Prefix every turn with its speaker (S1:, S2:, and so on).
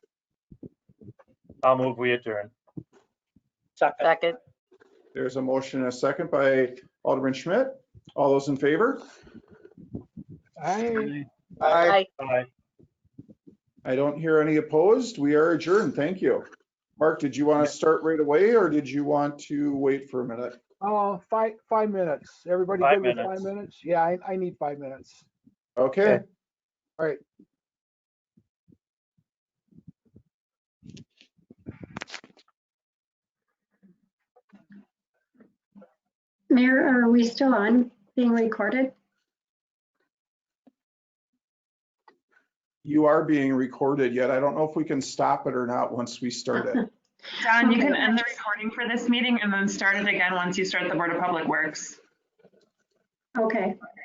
S1: I'll move, we adjourn.
S2: Second.
S3: Second,
S4: There's a motion and a second by Alderman Schmidt. All those in favor?
S5: I.
S4: I
S3: aye.
S1: Bye.
S4: I don't hear any opposed. We are adjourned. Thank you. Mark, did you want to start right away or did you want to wait for a minute?
S5: Oh, five, five minutes. Everybody
S1: Five
S5: give me five
S1: minutes.
S5: minutes? Yeah, I, I need five minutes.
S4: Okay.
S6: Mayor, are we still on being recorded?
S4: You are being recorded yet. I don't know if we can stop it or not once we start it.
S7: Don, you can
S6: Okay.
S7: end the recording for this meeting and then start it again once you start the Board of Public Works.
S6: Okay.